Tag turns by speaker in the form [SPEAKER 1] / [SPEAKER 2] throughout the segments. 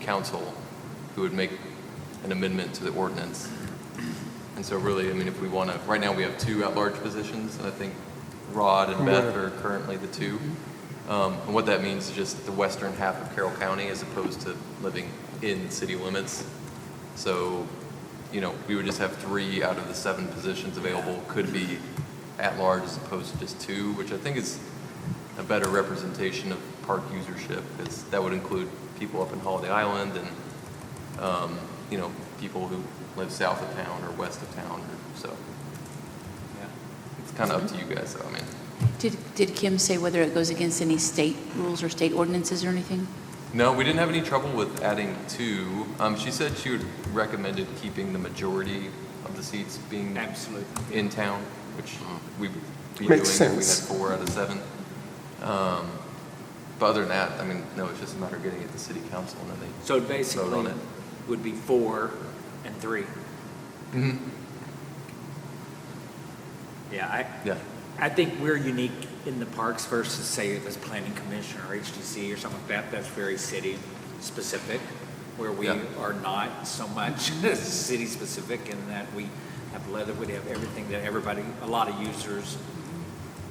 [SPEAKER 1] council who would make an amendment to the ordinance. And so really, I mean, if we want to, right now, we have two at-large positions, and I think Rod and Beth are currently the two. Um, And what that means is just the western half of Carroll County as opposed to living in city limits. So, you know, we would just have three out of the seven positions available could be at-large as opposed to just two, which I think is a better representation of park usership, because that would include people up in Holiday Island and, um, you know, people who live south of town or west of town, or so. Yeah, It's kind of up to you guys, though, I mean.
[SPEAKER 2] Did, did Kim say whether it goes against any state rules or state ordinances or anything?
[SPEAKER 1] No, we didn't have any trouble with adding two. Um, she said she would recommended keeping the majority of the seats being
[SPEAKER 3] Absolutely.
[SPEAKER 1] in town, which
[SPEAKER 3] Mm-hmm.
[SPEAKER 1] we would be doing
[SPEAKER 4] Makes
[SPEAKER 1] if we had
[SPEAKER 4] sense.
[SPEAKER 1] four out of seven. Um, But other than that, I mean, no, it's just a matter of getting it to city council and then
[SPEAKER 3] So it
[SPEAKER 1] Vote on
[SPEAKER 3] basically
[SPEAKER 1] it.
[SPEAKER 3] would be four and three.
[SPEAKER 1] they. Mhm.
[SPEAKER 3] Yeah, I,
[SPEAKER 1] Yeah,
[SPEAKER 3] I think we're unique in the parks versus, say, if it's planning commission or HDC or something like that, that's very city-specific, where we
[SPEAKER 1] Yeah.
[SPEAKER 3] are not so much city-specific in that we have Leatherwood, have everything that everybody, a lot of users,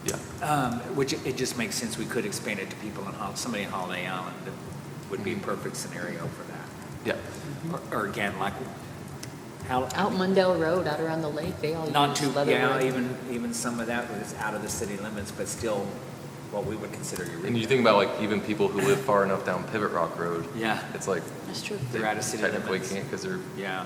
[SPEAKER 1] yeah,
[SPEAKER 3] um, which it just makes sense, we could expand it to people in, Hol- somebody in Holiday Island, that would
[SPEAKER 1] Mm-hmm.
[SPEAKER 3] be a perfect scenario for that.
[SPEAKER 1] yeah.
[SPEAKER 3] Or- Or again, like, how,
[SPEAKER 5] Out Mundell Road, out around the lake, they all
[SPEAKER 3] Not
[SPEAKER 5] use
[SPEAKER 3] too,
[SPEAKER 5] leather
[SPEAKER 3] yeah,
[SPEAKER 5] rope.
[SPEAKER 3] even, even some of that was out of the city limits, but still what we would consider your.
[SPEAKER 1] And you think about like even people who live far enough down Pivot Rock Road,
[SPEAKER 3] Yeah,
[SPEAKER 1] it's like
[SPEAKER 2] That's true.
[SPEAKER 1] they
[SPEAKER 3] They're out of city
[SPEAKER 1] technically
[SPEAKER 3] limits.
[SPEAKER 1] can't because they're,
[SPEAKER 3] yeah.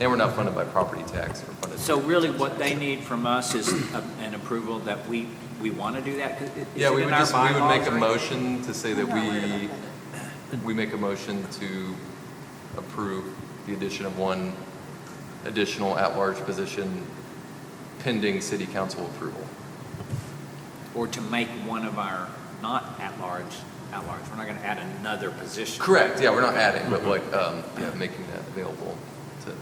[SPEAKER 1] and we're not funded by property tax, we're funded.
[SPEAKER 3] So really what they need from us is a- an approval that we, we want to do that. Is it
[SPEAKER 1] Yeah, we
[SPEAKER 3] in
[SPEAKER 1] would
[SPEAKER 3] our
[SPEAKER 1] just, we would make
[SPEAKER 3] bylaws
[SPEAKER 1] a
[SPEAKER 3] or-
[SPEAKER 1] motion to say that
[SPEAKER 5] I'm not worried about
[SPEAKER 1] we, we make a motion to approve the addition of one additional at-large position pending city council approval.
[SPEAKER 3] Or to make one of our not at-large, at-large. We're not going to add another position.
[SPEAKER 1] Correct, yeah, we're not adding, but like, um, yeah, making that available to,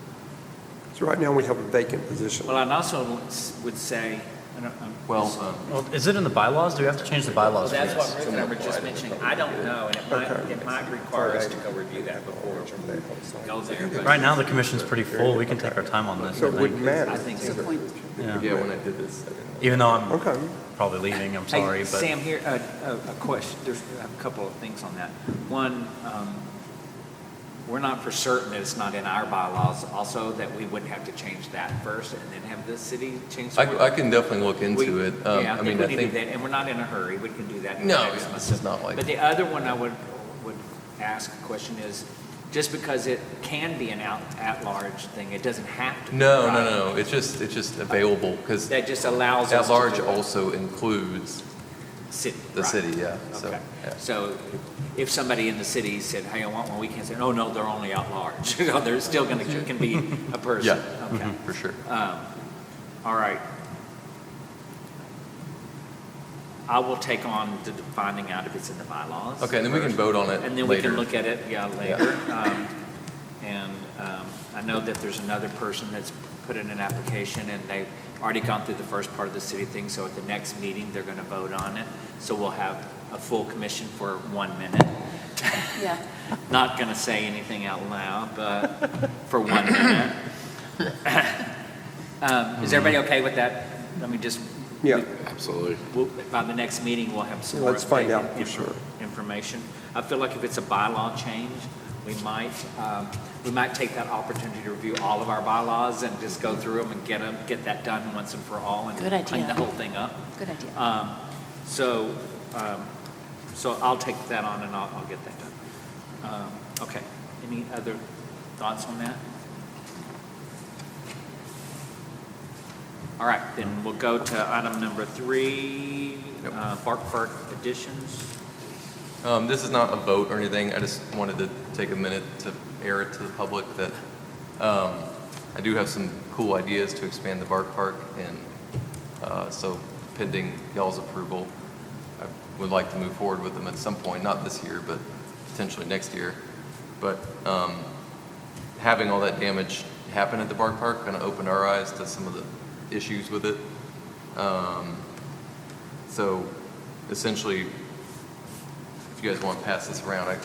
[SPEAKER 4] So right now, we have a vacant position.
[SPEAKER 3] Well, I'd also would say, I don't, I'm.
[SPEAKER 1] well, um,
[SPEAKER 6] Well, is it in the bylaws? Do we have to change the bylaws for
[SPEAKER 3] That's
[SPEAKER 6] this?
[SPEAKER 3] what Rick and I were just mentioning. I don't know, and it might, it might require us to go review that before we go there. but-
[SPEAKER 6] Right now, the commission's pretty full. We can take our time on this,
[SPEAKER 4] So
[SPEAKER 6] I
[SPEAKER 4] it wouldn't
[SPEAKER 6] think.
[SPEAKER 4] matter.
[SPEAKER 3] I think
[SPEAKER 2] That's a point.
[SPEAKER 1] yeah,
[SPEAKER 6] Yeah.
[SPEAKER 1] when I did this, I didn't.
[SPEAKER 6] Even though I'm
[SPEAKER 4] Okay,
[SPEAKER 6] probably leaving, I'm
[SPEAKER 3] Hey,
[SPEAKER 6] sorry, but
[SPEAKER 3] Sam, here, uh, a a question, there's a couple of things on that. One, um, we're not for certain that it's not in our bylaws also, that we wouldn't have to change that first and then have the city change. the
[SPEAKER 1] I, I can definitely look into
[SPEAKER 3] We-
[SPEAKER 1] it. Um,
[SPEAKER 3] Yeah, I
[SPEAKER 1] mean,
[SPEAKER 3] think we need to do that, and we're not in a hurry, we can do that. in the
[SPEAKER 1] No,
[SPEAKER 3] next
[SPEAKER 1] yeah,
[SPEAKER 3] month.
[SPEAKER 1] this is not like-
[SPEAKER 3] But the other one I would, would ask a question is, just because it can be an out, at-large thing, it doesn't have to. be,
[SPEAKER 1] No,
[SPEAKER 3] right?
[SPEAKER 1] no, no, it's just, it's just available because
[SPEAKER 3] That just allows us to
[SPEAKER 1] at-large
[SPEAKER 3] do it.
[SPEAKER 1] also includes
[SPEAKER 3] City.
[SPEAKER 1] the
[SPEAKER 3] right.
[SPEAKER 1] city, yeah, so,
[SPEAKER 3] Okay.
[SPEAKER 1] yeah.
[SPEAKER 3] So if somebody in the city said, hey, I want one, we can't say, oh, no, they're only out large. No, they're still going to, can be a person.
[SPEAKER 1] Yeah. Mm-hmm.
[SPEAKER 3] Okay.
[SPEAKER 1] for sure.
[SPEAKER 3] Um, All right. I will take on the finding out if it's in the bylaws.
[SPEAKER 1] Okay, and then we can
[SPEAKER 3] first.
[SPEAKER 1] vote on it
[SPEAKER 3] And then we
[SPEAKER 1] later.
[SPEAKER 3] can look at it, yeah, later. Um, And um, I know that there's another person that's put in an application, and they've already gone through the first part of the city thing, so at the next meeting, they're going to vote on it. So we'll have a full commission for one minute.
[SPEAKER 2] Yeah.
[SPEAKER 3] Not going to say anything out loud, but for one minute. Um, Is everybody okay with that? Let me just,
[SPEAKER 4] yeah,
[SPEAKER 3] we'll- by the next meeting, we'll have some more.
[SPEAKER 4] Let's find
[SPEAKER 3] updated
[SPEAKER 4] out for
[SPEAKER 3] inf-
[SPEAKER 4] sure.
[SPEAKER 3] Information. I feel like if it's a bylaw change, we might, um, we might take that opportunity to review all of our bylaws and just go through them and get them, get that done once and for all and
[SPEAKER 2] Good
[SPEAKER 3] clean the
[SPEAKER 2] idea.
[SPEAKER 3] whole thing up.
[SPEAKER 2] Good idea.
[SPEAKER 3] Um, So, um, so I'll take that on and I'll, I'll get that done. Um, Okay, any other thoughts on that? All right, then we'll go to item number three,
[SPEAKER 1] Yep.
[SPEAKER 3] uh, Bark Park additions.
[SPEAKER 1] Um, This is not a vote or anything, I just wanted to take a minute to air it to the public that um, I do have some cool ideas to expand the Bark Park, and uh, so pending y'all's approval, I would like to move forward with them at some point, not this year, but potentially next year. But um, having all that damage happen at the Bark Park kind of opened our eyes to some of the issues with it. Um, So essentially, if you guys want to pass this around, I, I